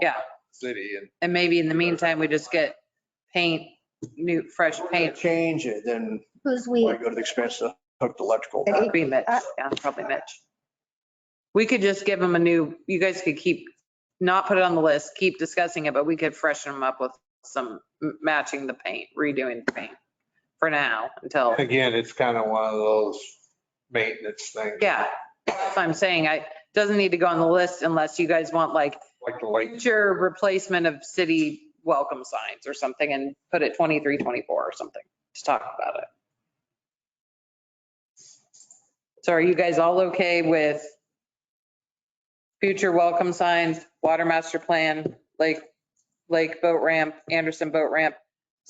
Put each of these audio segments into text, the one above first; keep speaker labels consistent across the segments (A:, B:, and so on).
A: Yeah.
B: City and
A: And maybe in the meantime, we just get paint, new, fresh
C: If we're gonna
A: paint.
C: Change it, then
D: Who's
C: why
D: we?
C: go to the expense to hook the electrical?
D: Hey.
A: Be Mitch, yeah, probably Mitch. We could just give them a new, you guys could keep, not put it on the list, keep discussing it, but we could freshen them up with some m- matching the paint, redoing the paint for now until,
B: again, it's kind of one of those maintenance things.
A: yeah. That's what I'm saying. I, doesn't need to go on the list unless you guys want like
B: Like the light,
A: future replacement of city welcome signs or something and put it 23, 24 or something to talk about it. So are you guys all okay with future welcome signs, water master plan, lake, lake boat ramp, Anderson boat ramp,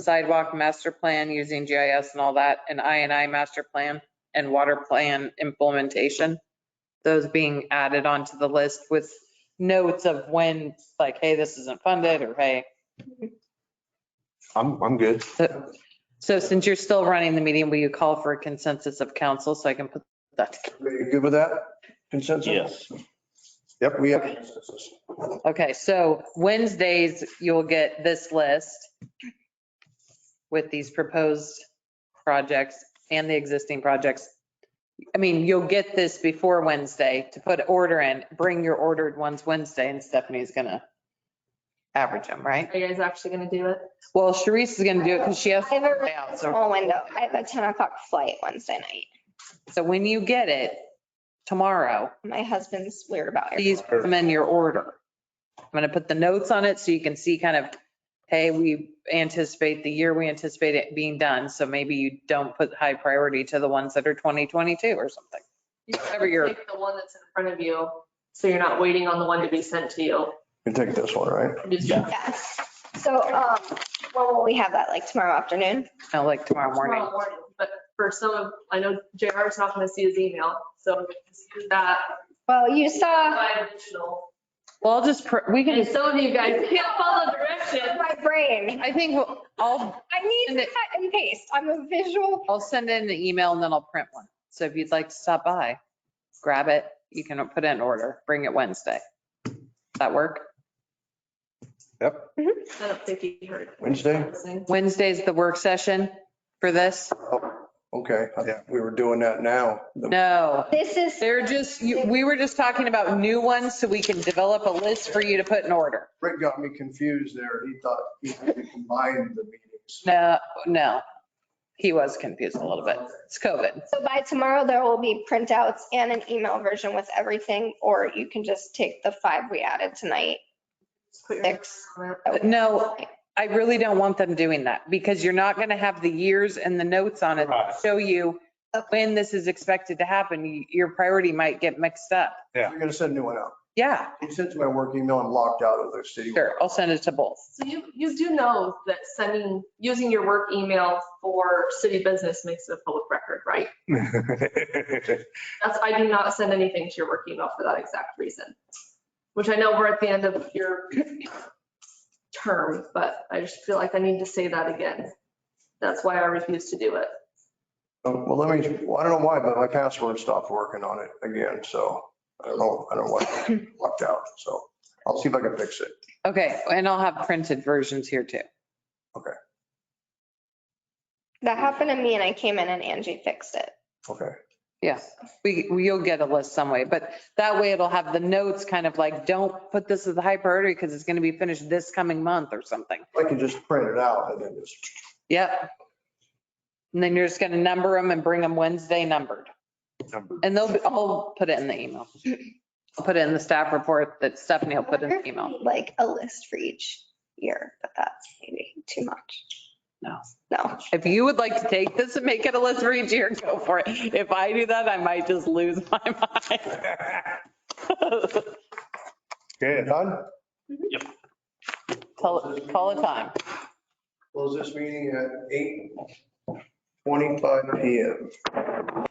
A: sidewalk master plan using GIS and all that, and I and I master plan and water plan implementation? Those being added onto the list with notes of when, like, hey, this isn't funded, or hey.
C: I'm, I'm good.
A: So so since you're still running the meeting, will you call for a consensus of council so I can put that, together?
C: Are you good with that consensus?
E: Yes.
C: Yep, we have consensus.
A: okay, so Wednesdays, you'll get this list with these proposed projects and the existing projects. I mean, you'll get this before Wednesday to put order in, bring your ordered ones Wednesday, and Stephanie's gonna average them, right?
F: Are you guys actually gonna do it?
A: Well, Sharice is gonna do it because she has.
D: I have a
A: Yeah, so-
D: small window. I have a 10 o'clock flight Wednesday night.
A: So when you get it tomorrow,
D: My husband's weird about it.
A: please put them in your order. I'm going to put the notes on it so you can see kind of, hey, we anticipate the year we anticipate it being done. So maybe you don't put high priority to the ones that are 2022 or something.
F: You should
A: Every year.
F: Take the one that's in front of you, so you're not waiting on the one to be sent to you.
C: You take this one, right?
F: Just-
E: Yeah.
D: Yeah. So, um, when will we have that? Like tomorrow afternoon?
A: Now, like tomorrow morning.
F: tomorrow But for some of, I know JR's not gonna see his email, so just do that.
D: Well, you saw
F: Five additional.
A: Well, I'll just, pr- we can
F: And
A: just,
F: some of you guys can't follow directions.
D: my brain.
A: I think we'll- I'll,
D: I need
A: And
D: to
A: it-
D: cut and paste. I'm a visual.
A: I'll send in an email and then I'll print one. So if you'd like to stop by, grab it. You can put it in order, bring it Wednesday. Does that work?
F: I don't think he heard.
C: Wednesday?
A: Wednesday's the work session for this?
C: Okay, I thought we were doing that now.
A: No,
D: This is.
A: They're just, you- we were just talking about new ones so we can develop a list for you to put in order.
C: Rick got me confused there. He thought he had to combine the meetings.
A: No, no. He was confused a little bit. It's COVID.
D: So by tomorrow, there will be printouts and an email version with everything, or you can just take the five we added tonight. Six.
A: But No, I really don't want them doing that because you're not going to have the years and the notes on it to
B: Right.
A: show you when this is expected to happen. You- Your priority might get mixed up.
C: You're gonna send a new one out.
A: Yeah,
C: He sent my work email, I'm locked out of the city.
A: sure. I'll send it to both.
F: So you, you do know that sending, using your work email for city business makes it a public record, right? That's, I do not send anything to your work email for that exact reason, which I know we're at the end of your term, but I just feel like I need to say that again. That's why I refuse to do it.
C: Oh, Well, let me, well, I don't know why, but my password stopped working on it again, so I don't know, I don't know why, locked out, so I'll see if I can fix it.
A: Okay, and I'll have printed versions here too.
D: That happened to me and I came in and Angie fixed it.
C: Okay.
A: Yeah, we, we- you'll get a list some way, but that way it'll have the notes kind of like, don't put this as a high priority because it's going to be finished this coming month or something.
C: I can just print it out and then just,
A: Yep. And then you're just going to number them and bring them Wednesday numbered.
B: Numbered.
A: And they'll, be- I'll put it in the email. I'll put it in the staff report that Stephanie will put in the email.
D: Like a list for each year, but that's maybe too much.
A: No.
D: No.
A: If you would like to take this and make it a list for each year, go for it. If I do that, I might just lose my mind.
B: Good.
C: done?
A: Call, call a time.
C: Close this meeting at 8:25 PM.